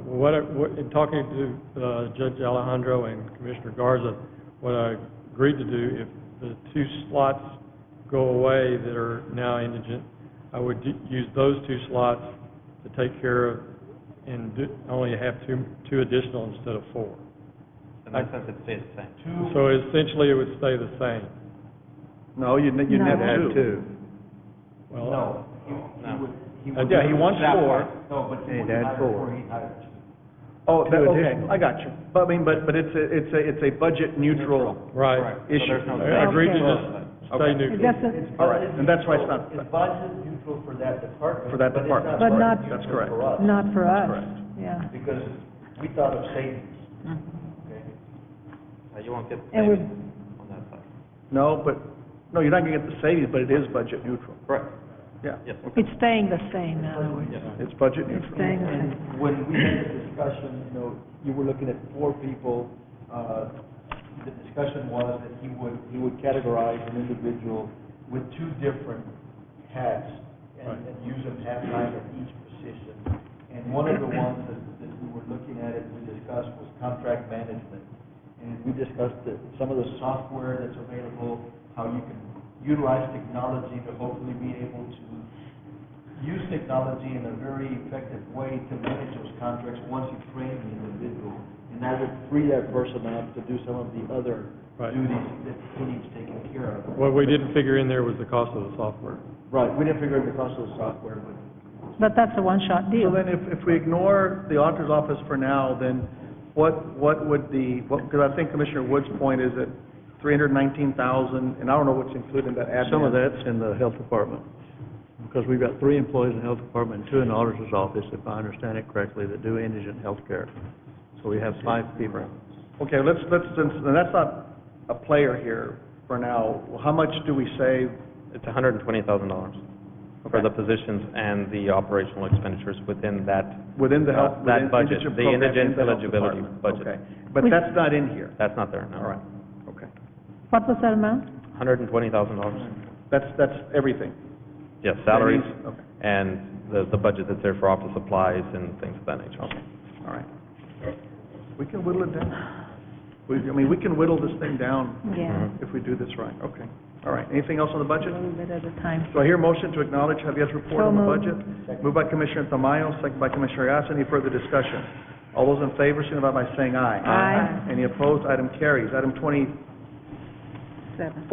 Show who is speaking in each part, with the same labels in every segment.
Speaker 1: what, I- what, in talking to, uh, Judge Alejandro and Commissioner Garza, what I agreed to do, if the two slots go away that are now indigent, I would u- use those two slots to take care of and do, only have two, two additional instead of four.
Speaker 2: In that sense, it stays the same.
Speaker 1: So essentially, it would stay the same.
Speaker 3: No, you'd, you'd
Speaker 4: No.
Speaker 3: have
Speaker 4: Add
Speaker 3: two.
Speaker 1: Well,
Speaker 2: No.
Speaker 3: Uh, Yeah, he wants four.
Speaker 5: No, but
Speaker 3: Hey,
Speaker 5: he would
Speaker 3: that's
Speaker 5: hire
Speaker 3: four.
Speaker 5: four, he'd hire two.
Speaker 3: Oh, that,
Speaker 6: Two
Speaker 3: okay,
Speaker 6: additional.
Speaker 3: I got you. But I mean, but, but it's a, it's a, it's a budget neutral.
Speaker 1: right.
Speaker 2: Correct. So
Speaker 3: Issue.
Speaker 2: there's no
Speaker 1: I
Speaker 2: change.
Speaker 1: I agreed to
Speaker 3: Okay.
Speaker 1: just stay
Speaker 3: Okay.
Speaker 4: It
Speaker 1: neutral.
Speaker 4: doesn't,
Speaker 3: All right, and that's why it's
Speaker 5: budget
Speaker 3: not-
Speaker 5: neutral- It's budget neutral for that department.
Speaker 3: For that department.
Speaker 4: But
Speaker 5: budget
Speaker 4: not-
Speaker 5: neutral
Speaker 3: That's correct.
Speaker 5: for us,
Speaker 4: not for us.
Speaker 3: correct.
Speaker 4: Yeah.
Speaker 5: Because we thought of savings, okay?
Speaker 2: Uh, You won't get the
Speaker 4: And we-
Speaker 2: savings on that side.
Speaker 3: No, but, no, you're not gonna get the savings, but it is budget neutral.
Speaker 2: Correct.
Speaker 3: Yeah,
Speaker 2: Yes.
Speaker 4: It's staying the same, in other words.
Speaker 3: it's budget
Speaker 4: It's
Speaker 3: neutral.
Speaker 4: staying the same.
Speaker 5: And when we had the discussion, you know, you were looking at four people, uh, the discussion was that he would, he would categorize an individual with two different hats and, and use them half-time at each position. And one of the ones that, that we were looking at and we discussed was contract management. And we discussed that some of the software that's available, how you can utilize technology to hopefully be able to use technology in a very effective way to manage those contracts once you train the individual. And that would free that person up to do some of the other
Speaker 1: Right.
Speaker 5: duties that he needs taken care of.
Speaker 1: What we didn't figure in there was the cost of the software.
Speaker 5: Right, we didn't figure out the cost of the software, but
Speaker 4: But that's a one-shot
Speaker 3: So
Speaker 4: deal.
Speaker 3: then if, if we ignore the auditor's office for now, then what, what would the, what, because I think Commissioner Wood's point is that three hundred nineteen thousand, and I don't know what's included in that admin.
Speaker 6: Some of that's in the health department, because we've got three employees in the health department, and two in the auditor's office, if I understand it correctly, that do indigent healthcare. So we have five people.
Speaker 3: Okay, let's, let's, since, and that's not a player here for now, how much do we save?
Speaker 2: It's hundred and twenty thousand dollars for
Speaker 3: Okay.
Speaker 2: the positions and the operational expenditures within that.
Speaker 3: Within the health,
Speaker 2: Uh,
Speaker 3: within
Speaker 2: that budget, the
Speaker 3: indigent program,
Speaker 2: indigent
Speaker 3: in the health
Speaker 2: eligibility
Speaker 3: department.
Speaker 2: budget.
Speaker 3: Okay, but
Speaker 4: We-
Speaker 3: that's not in here,
Speaker 2: That's not there, no.
Speaker 3: all right, okay.
Speaker 4: What was that amount?
Speaker 2: Hundred and twenty thousand dollars.
Speaker 3: That's, that's everything.
Speaker 2: Yes, salaries
Speaker 3: That means- Okay,
Speaker 2: and the, the budget that's there for office supplies and things of that nature.
Speaker 3: all right. We can whittle it down. We, I mean, we can whittle this thing down
Speaker 4: Yeah,
Speaker 3: if we do this right, okay, all right. Anything else on the
Speaker 4: a
Speaker 3: budget?
Speaker 4: little bit at a time.
Speaker 3: Do I hear a motion to acknowledge Javier's report
Speaker 4: So
Speaker 3: on the
Speaker 4: moved.
Speaker 3: budget? Moved by Commissioner Tamayo, second by Commissioner Gatsa. Any further discussion? All those in favor, signify by saying aye.
Speaker 4: Aye.
Speaker 3: Any opposed? Item carries. Item twenty-four,
Speaker 4: Seven.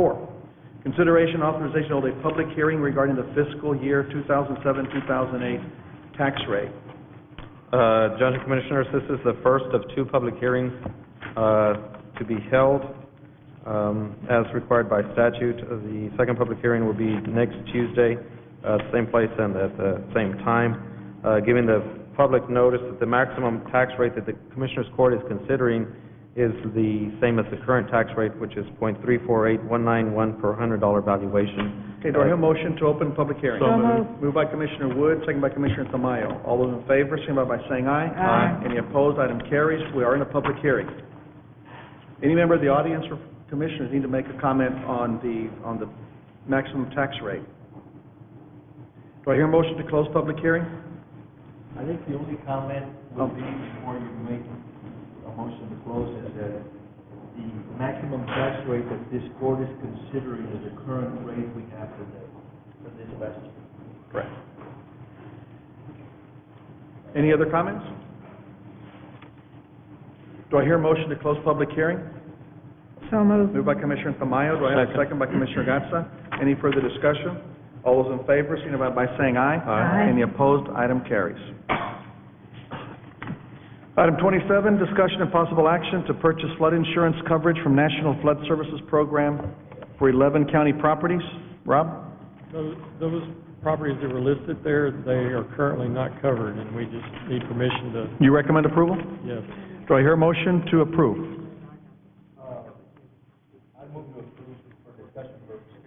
Speaker 3: consideration authorization of a public hearing regarding the fiscal year two thousand seven, two thousand eight tax rate.
Speaker 2: Uh, Judge and Commissioners, this is the first of two public hearings uh, to be held um, as required by statute. Uh, The second public hearing will be next Tuesday, uh, same place and at the same time, Uh, giving the public notice that the maximum tax rate that the Commissioners Court is considering is the same as the current tax rate, which is .348191 per $100 valuation.
Speaker 3: Okay, do I hear a motion to open public hearing?
Speaker 4: So moved.
Speaker 3: Moved by Commissioner Wood, second by Commissioner Tamayo. All those in favor, signify by saying aye.
Speaker 4: Aye.
Speaker 3: Any opposed? Item carries. We are in a public hearing. Any member of the audience or commissioners need to make a comment on the, on the maximum tax rate? Do I hear a motion to close public hearing?
Speaker 5: I think the only comment would be before you make a motion to close is that the maximum tax rate that this court is considering is the current rate we have today for this last year.
Speaker 3: Correct. Any other comments? Do I hear a motion to close public hearing?
Speaker 4: So moved.
Speaker 3: Moved by Commissioner Tamayo, do I have a second by Commissioner Gatsa? Any further discussion? All those in favor, signify by saying aye.
Speaker 4: Aye.
Speaker 3: Any opposed, item carries. Item twenty-seven, discussion and possible action to purchase flood insurance coverage from National Flood Services Program for eleven county properties. Rob?
Speaker 1: Those those properties that were listed there, they are currently not covered, and we just need permission to,
Speaker 3: You recommend approval?
Speaker 1: yes.
Speaker 3: Do I hear a motion to approve?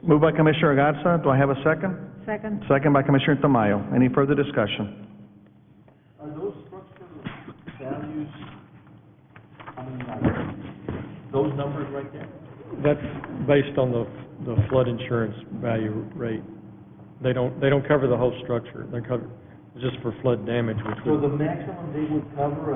Speaker 3: Moved by Commissioner Gatsa, do I have a second?
Speaker 4: Second?
Speaker 3: Second by Commissioner Tamayo. Any further discussion?
Speaker 5: Are those structural values, I mean, like, those numbers right there?
Speaker 1: That's based on the the flood insurance value rate. They don't, they don't cover the whole structure. They're covered just for flood damage, which
Speaker 5: So
Speaker 1: would
Speaker 5: the maximum they would cover